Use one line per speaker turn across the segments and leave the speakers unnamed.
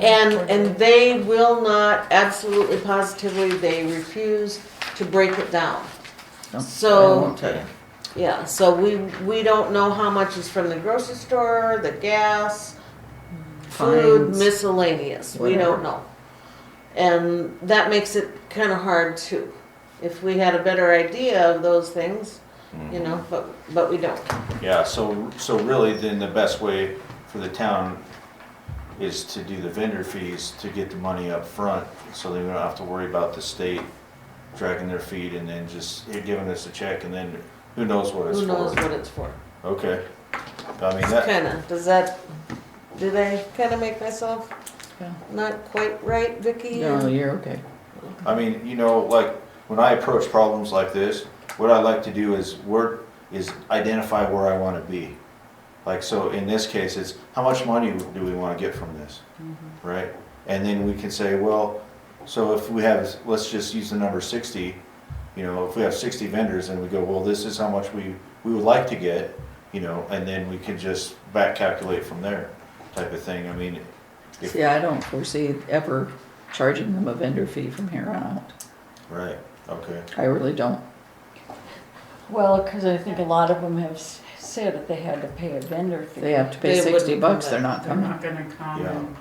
And, and they will not, absolutely positively, they refuse to break it down.
No,
So-
I won't tell you.
Yeah, so we, we don't know how much is from the grocery store, the gas, food,
Fines.
miscellaneous, we
Whatever.
don't know. And that makes it kinda hard too. If we had a better idea of those things, you know, but, but we don't.
Yeah, so, so really then the best way for the town is to do the vendor fees to get the money up front, so they don't have to worry about the state dragging their feet and then just eh, giving us a check and then who knows what it's
Who knows
for.
what it's for?
Okay. I mean,
It's
that,
kinda, does that, did I kinda make myself
Yeah.
not quite right, Vicky?
No, you're okay.
I mean, you know, like, when I approach problems like this, what I like to do is work, is identify where I wanna be. Like, so in this case, it's how much money do we wanna get from this, right? And then we can say, well, so if we have, let's just use the number sixty, you know, if we have sixty vendors and we go, well, this is how much we, we would like to get, you know, and then we can just back calculate from there, type of thing, I mean, if-
See, I don't foresee ever charging them a vendor fee from here on out.
right, okay,
I really don't.
Well, because I think a lot of them have s- said that they had to pay a vendor fee.
They have to pay
They wouldn't
sixty
do
bucks,
that.
they're not
They're
coming.
not gonna come
Yeah.
and.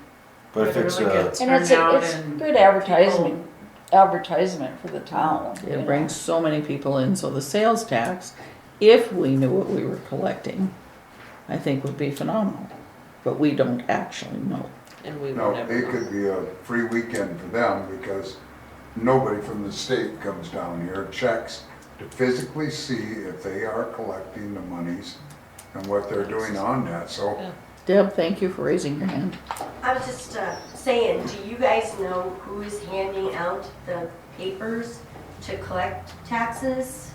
but if it's,
really
uh,
get
And it's,
turned out
it's
and
good advertisement, advertisement for the town. you know.
It brings so many people in, so the sales tax, if we knew what we were collecting, I think would be phenomenal. But we don't actually know.
And we
No,
will never
it
know.
could be a free weekend for them because nobody from the state comes down here, checks to physically see if they are collecting the monies and what they're doing on that, so.
Deb, thank you for raising your hand.
I was just uh, saying, do you guys know who is handing out the papers to collect taxes?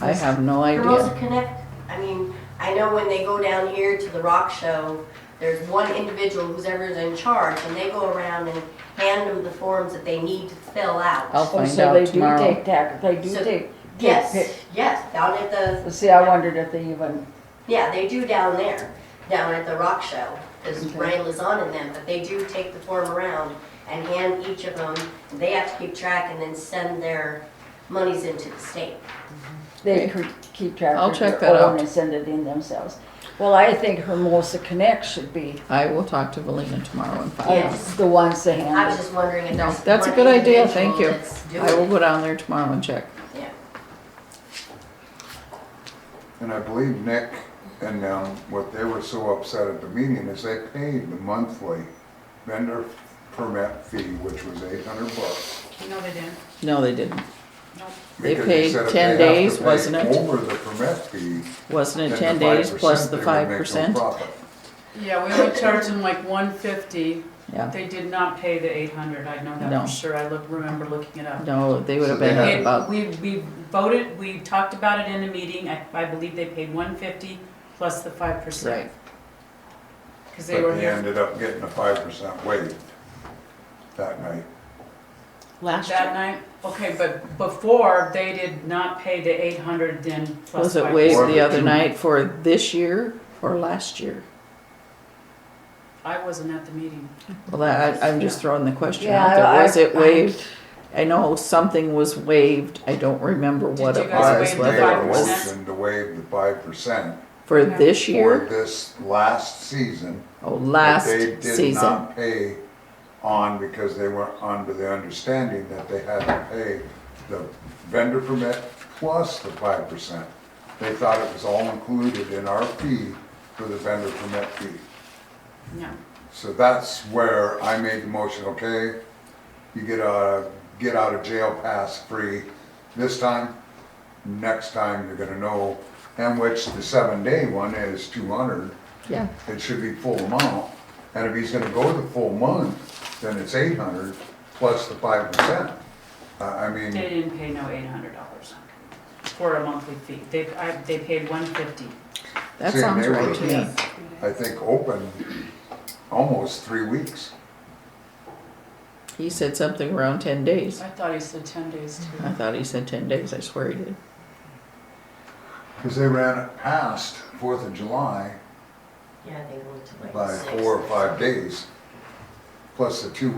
I have no
The Rosa
idea.
Connect, I mean, I know when they go down here to the rock show, there's one individual who's ever's in charge, and they go around and hand them the forms that they need to fill
I'll
out.
Oh,
find
so
out
they
tomorrow.
do take tax, they do
So-
take.
Yes, yes, down at the,
Well, See, I wondered if they even,
yeah, they do down there, down at the rock show, because
Okay.
Ryan Lozon and them, but they do take the form around and hand each of them, they have to keep track and then send their monies into the state.
they could keep track
I'll
of
check
their
that
own
out.
and send it in themselves. Well, I think Hermosa Connect should be uh,
I will talk to Valina tomorrow and find out.
Yes.
the ones to
I was
handle.
just wondering if
No,
there's.
that's a
one
good idea, thank you.
individual that's doing
I will
it.
go down there tomorrow and check.
Yeah.
And I believe Nick and them, what they were so upset at the meeting is they paid the monthly vendor permit fee, which was eight hundred bucks.
No, they didn't.
No, they didn't. They
because
paid
said
10
if they have to
days,
pay
wasn't it?
Over the permit fee.
Wasn't
then
it
the
ten days
5%,
plus the
they would
five
make no
percent?
profit.
Yeah, we only charged them like one fifty.
Yeah,
They did not pay the eight hundred. I know that
No.
for sure. I look, remember looking it up.
no, they would have
So they
been
had-
at
They-
about,
We, we voted, we talked about it in a meeting. I, I believe they paid one fifty plus the five
right,
percent. Cause they
But
were
they
here.
ended up getting a five percent waived that night.
Last year.
That night, okay, but before, they did not pay the eight hundred then plus
was
five
it
percent.
waived
Or
the
the
other
two-
night for this year or last year?
I wasn't at the meeting.
Well, that, I, I'm just throwing the question
Yeah,
out there,
I-
was it
I-
waived? I know something was waived, I don't remember what
you
it
guys
was,
waive the
I made a
whether it was
5%?
motion to waive the five percent
for
Yeah.
this
for
year,
this last season.
oh,
that
last
They did
season.
not pay on because they were under the understanding that they had to pay the vendor permit plus the five percent. They thought it was all included in our fee for the vendor permit fee.
No.
So that's where I made the motion, okay? You get a, get out of jail pass free this time, next time you're gonna know, and which the seven day one is two hundred,
Yeah,
it should be full amount. And if he's gonna go the full month, then it's eight hundred plus the five percent. I, I
They
mean,
didn't pay no eight hundred dollars for a monthly fee. They, I, they paid one fifty.
that
See,
sounds
they
right
were-
to me,
I think open almost three weeks.
he said something around ten days,
I thought he said ten days
I
too.
thought he said ten days, I swear he did.
Cause they ran it past Fourth of July
Yeah, they went to like
by
six.
four or five days. plus the two